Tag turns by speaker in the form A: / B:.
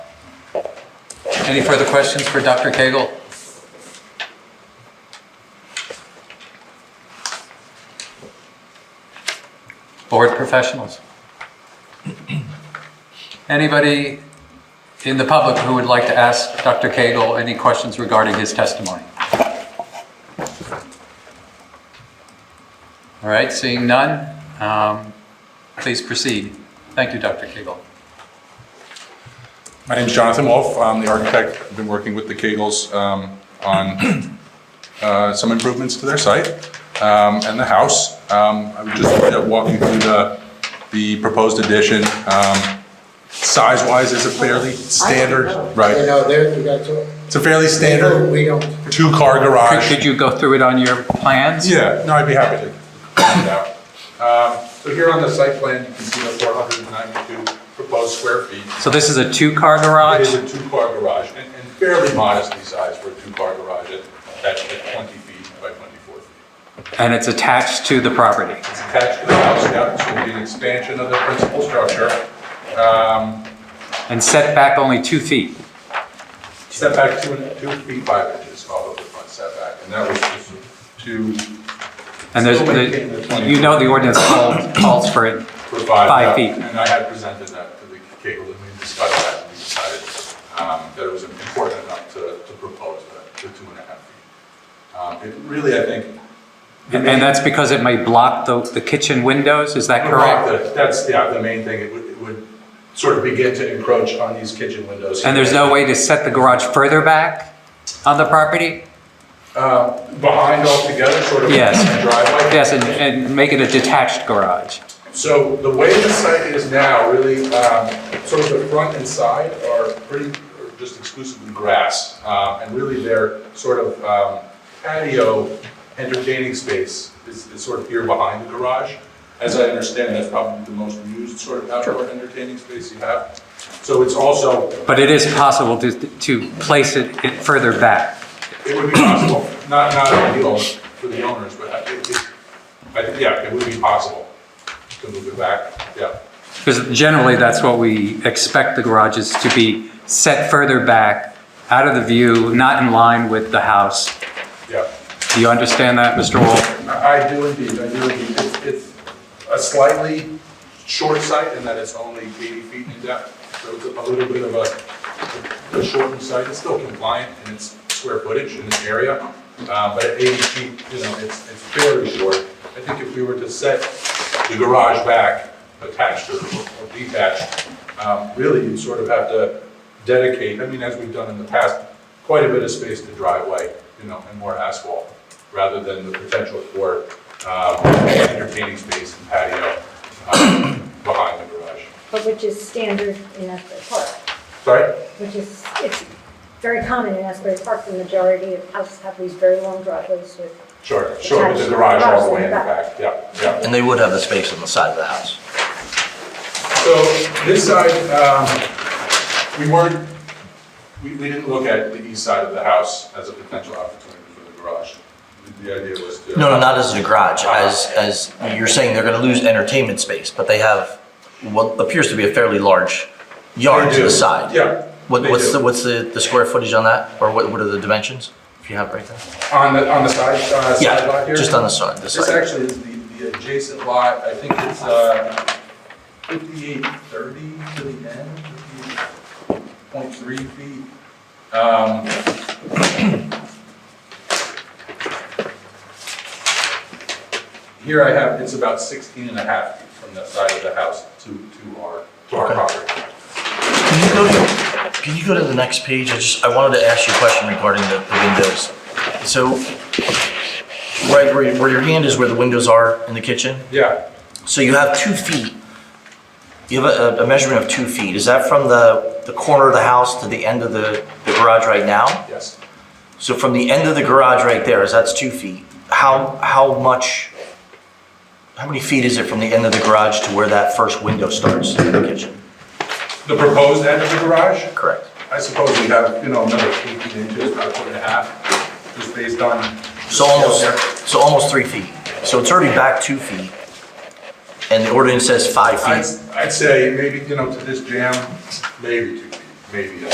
A: Any further questions for Dr. Cagle? Board professionals? Anybody in the public who would like to ask Dr. Cagle any questions regarding his testimony? All right, seeing none, um, please proceed. Thank you, Dr. Cagle.
B: My name's Jonathan Wolf. I'm the architect. I've been working with the Kegels um, on uh, some improvements to their site um, and the house. Um, I would just walk you through the, the proposed addition. Um, Size-wise, is a fairly standard,
C: You
B: right?
C: know, there, you got to.
B: It's a fairly standard
C: We don't,
B: two-car
A: Could
B: garage.
A: could you go through it on your plans?
B: Yeah, no, I'd be happy to. find out. Um, So here on the site plan, you can see the 492 proposed square feet.
A: So this is a two-car
B: It
A: garage?
B: is a two-car garage, and and fairly modestly sized for a two-car garage, It- that's at 20 feet by 24 feet.
A: And it's attached to the property.
B: It's attached to the house, yeah, so it'll be an expansion of the principal structure. Um,
A: And setback only two feet.
B: Setback two and- two feet, five inches, follow the front setback, and that was just to
A: And there's,
B: Still maintain the
A: the-
B: 20.
A: you know the ordinance calls, calls for it.
B: provide
A: Five
B: that.
A: feet.
B: And I had presented that to the Cagle, and we discussed that, and we decided um, that it was important enough to to propose that, the two and a half feet. Um, It really, I think,
A: And and that's because it may block the, the kitchen windows, is that correct?
B: Correct, that's, yeah, the main thing, it would, it would sort of begin to encroach on these kitchen windows.
A: And there's no way to set the garage further back on the property?
B: Behind altogether, sort of.
A: Yes.
B: in the Driveway.
A: Yes, and, and make it a detached garage.
B: So the way the site is now, really, um, sort of the front and side are pretty, are just exclusively grass. Uh, and really their sort of um, patio entertaining space is, is sort of here behind the garage. As I understand, that's probably the most used sort of outdoor entertaining space you have. So it's also
A: But it is possible to, to place it it further back.
B: It would be possible, not, not ideal for the owners, but I think, it- I think, yeah, it would be possible to move it back, yeah.
A: Because generally, that's what we expect the garages to be, set further back, out of the view, not in line with the house.
B: Yeah,
A: Do you understand that, Mr. Wolf?
B: I I do indeed, I do indeed. It's, it's a slightly short site in that it's only 80 feet in depth, so it's a little bit of a, a shortened site. It's still compliant in its square footage in its area, uh, but at 80 feet, you know, it's, it's fairly short. I think if we were to set the garage back, attached or or detached, um, really you'd sort of have to dedicate, I mean, as we've done in the past, quite a bit of space to driveway, you know, and more asphalt, rather than the potential for um, entertaining space and patio um, behind the garage.
D: but which is standard in Asbury Park,
B: Sorry?
D: which is, it's very common in Asbury Park, the majority of houses have these very long driveways with,
B: Sure, sure, with the garage all the way in the back, yeah, yeah.
E: And they would have the space on the side of the house.
B: So this side, um, we weren't, we, we didn't look at the east side of the house as a potential opportunity for the garage. The- The idea was to.
E: No, no, not as a garage, as, as, you're saying they're gonna lose entertainment space, but they have what appears to be a fairly large yard
B: They
E: to
B: do,
E: the side.
B: Yeah.
E: What,
B: they
E: what's
B: do.
E: the, what's the, the square footage on that, or what, what are the dimensions, if you have right there?
B: On the, on the side, uh, side lot
E: Yeah,
B: here?
E: just on the side, the
B: This
E: side.
B: actually is the, the adjacent lot, I think it's, uh, fifty-eight thirty to the end, fifty-eight point three feet. Um, Here I have, it's about 16 and a half feet from the side of the house to, to our, to our
E: Okay.
B: property.
E: Can you go to, can you go to the next page? I just, I wanted to ask you a question regarding the, the windows. So, right, where, where your hand is where the windows are in the kitchen?
B: Yeah,
E: So you have two feet, you have a, a measurement of two feet. Is that from the, the corner of the house to the end of the, the garage right now?
B: yes.
E: So from the end of the garage right there, is that's two feet? How, how much, how many feet is it from the end of the garage to where that first window starts in the kitchen?
B: The proposed end of the garage?
E: Correct.
B: I suppose we have, you know, another 18 inches, about a foot and a half, just based on.
E: So almost, so almost three feet. So it's already back two feet. And the ordinance says five
B: I'd,
E: feet.
B: I'd say maybe, you know, to this jam, maybe two feet, maybe. uh,